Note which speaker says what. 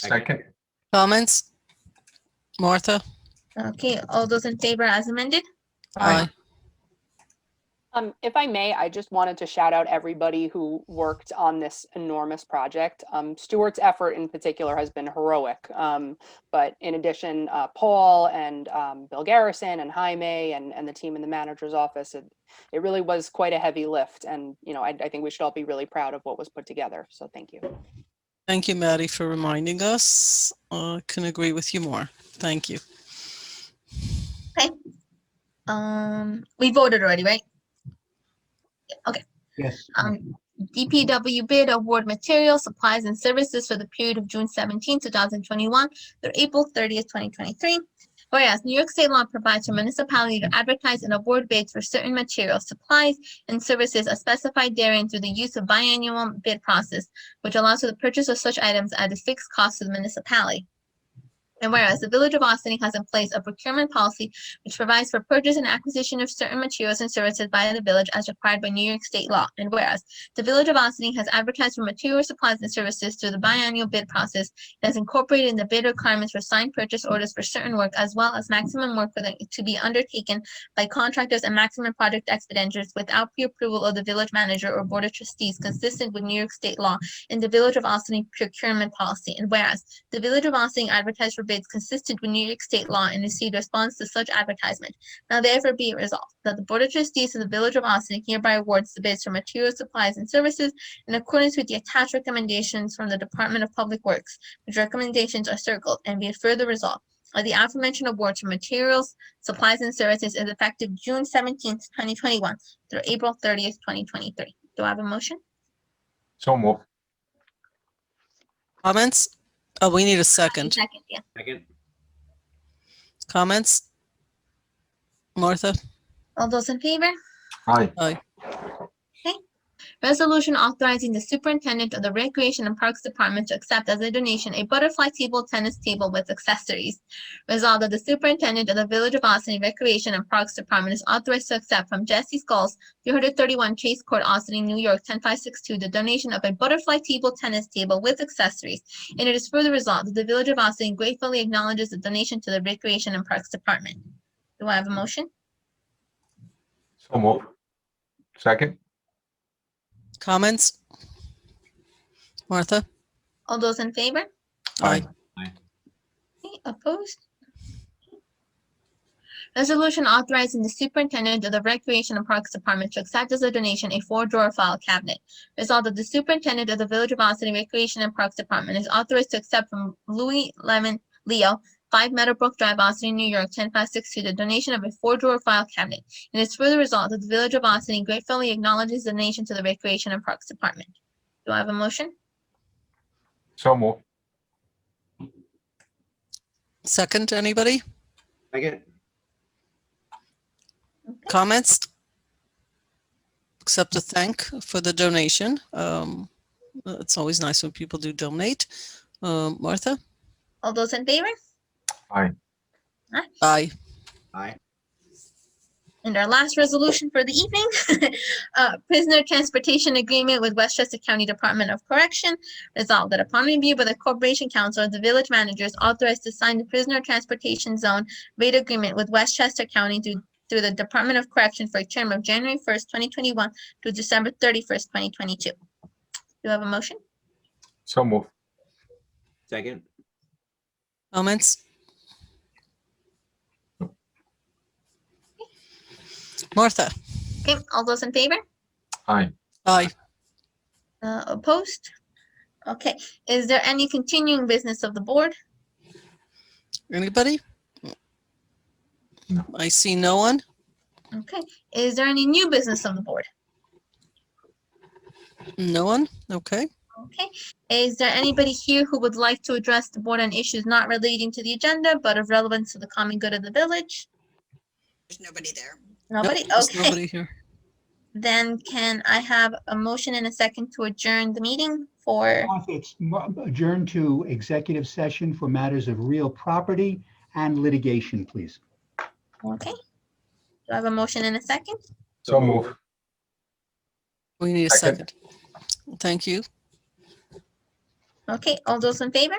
Speaker 1: Second.
Speaker 2: Comments? Martha?
Speaker 3: Okay, all those in favor as amended?
Speaker 1: Aye.
Speaker 4: Um, if I may, I just wanted to shout out everybody who worked on this enormous project. Um, Stuart's effort in particular has been heroic. Um, but in addition, uh, Paul and um, Bill Garrison and Jaime and, and the team in the manager's office, it, it really was quite a heavy lift. And, you know, I, I think we should all be really proud of what was put together. So thank you.
Speaker 2: Thank you, Maddie, for reminding us. I can agree with you more. Thank you.
Speaker 3: Um, we voted already, right? Okay.
Speaker 1: Yes.
Speaker 3: Um, DPW bid award materials, supplies and services for the period of June 17, thousand twenty-one through April thirtieth, twenty twenty-three. Whereas New York State law provides for municipality to advertise and award bids for certain materials, supplies and services as specified therein through the use of biannual bid process, which allows for the purchase of such items at a fixed cost to the municipality. And whereas the Village of Austin has in place a procurement policy which provides for purchase and acquisition of certain materials and services by the village as required by New York state law. And whereas the village of Austin has advertised for material supplies and services through the biannual bid process and has incorporated in the bid requirements for signed purchase orders for certain work as well as maximum work for the, to be undertaken by contractors and maximum project expenditures without pre-approval of the village manager or board of trustees consistent with New York state law and the village of Austin procurement policy. And whereas the Village of Austin advertised for bids consistent with New York State law and received response to such advertisement. Now therefore be it resolved that the Board of Trustees of the Village of Austin hereby awards the bids for materials, supplies, and services in accordance with the attached recommendations from the Department of Public Works, which recommendations are circled, and be it further resolved that the aforementioned awards for materials, supplies, and services is effective June seventeenth, twenty twenty-one through April thirtieth, twenty twenty-three. Do I have a motion?
Speaker 1: So move.
Speaker 2: Comments? Oh, we need a second.
Speaker 3: Second, yeah.
Speaker 5: Second.
Speaker 2: Comments? Martha?
Speaker 3: All those in favor?
Speaker 1: Aye.
Speaker 3: Resolution authorizing the superintendent of the Recreation and Parks Department to accept as a donation a butterfly table tennis table with accessories. Resolved that the superintendent of the Village of Austin Recreation and Parks Department is authorized to accept from Jesse Skulls, three hundred thirty-one Chase Court, Austin, New York, ten five six two, the donation of a butterfly table tennis table with accessories. And it is further resolved that the Village of Austin gratefully acknowledges the donation to the Recreation and Parks Department. Do I have a motion?
Speaker 1: So move. Second.
Speaker 2: Comments? Martha?
Speaker 3: All those in favor?
Speaker 2: Aye.
Speaker 3: Okay, Opposed? Resolution authorizing the superintendent of the Recreation and Parks Department to accept as a donation a four-drawer file cabinet. Result that the superintendent of the Village of Austin Recreation and Parks Department is authorized to accept from Louis Lemon Leo, five Meadowbrook Drive, Austin, New York, ten five six two, the donation of a four-drawer file cabinet. And it's further resolved that the Village of Austin gratefully acknowledges the donation to the Recreation and Parks Department. Do I have a motion?
Speaker 1: So move.
Speaker 2: Second, anybody?
Speaker 5: Second.
Speaker 2: Comments? Except to thank for the donation. Um, it's always nice when people do donate. Um, Martha?
Speaker 3: All those in favor?
Speaker 2: Aye.
Speaker 5: Aye.
Speaker 3: And our last resolution for the evening, uh, prisoner transportation agreement with Westchester County Department of Correction. Resolved that upon review by the Corporation Council, the village manager is authorized to sign the prisoner transportation zone rate agreement with Westchester County through, through the Department of Correction for a term of January first, twenty twenty-one through December thirty-first, twenty twenty-two. Do you have a motion?
Speaker 1: So move.
Speaker 5: Second.
Speaker 2: Comments? Martha?
Speaker 3: Okay, all those in favor?
Speaker 1: Aye.
Speaker 2: Aye.
Speaker 3: Uh, opposed? Okay, is there any continuing business of the board?
Speaker 2: Anybody?
Speaker 1: No.
Speaker 2: I see no one.
Speaker 3: Okay, is there any new business of the board?
Speaker 2: No one? Okay.
Speaker 3: Okay, is there anybody here who would like to address the board on issues not relating to the agenda, but of relevance to the common good of the village?
Speaker 6: There's nobody there.
Speaker 2: Nope,
Speaker 3: Nobody?
Speaker 2: there's
Speaker 3: Okay,
Speaker 2: Nobody here.
Speaker 3: then can I have a motion and a second to adjourn the meeting for,
Speaker 7: Off, It's mo- adjourned to executive session for matters of real property and litigation, please.
Speaker 3: okay? Do I have a motion and a second?
Speaker 1: So move.
Speaker 2: We need a
Speaker 1: Second.
Speaker 2: second. Thank you.
Speaker 3: Okay, all those in favor?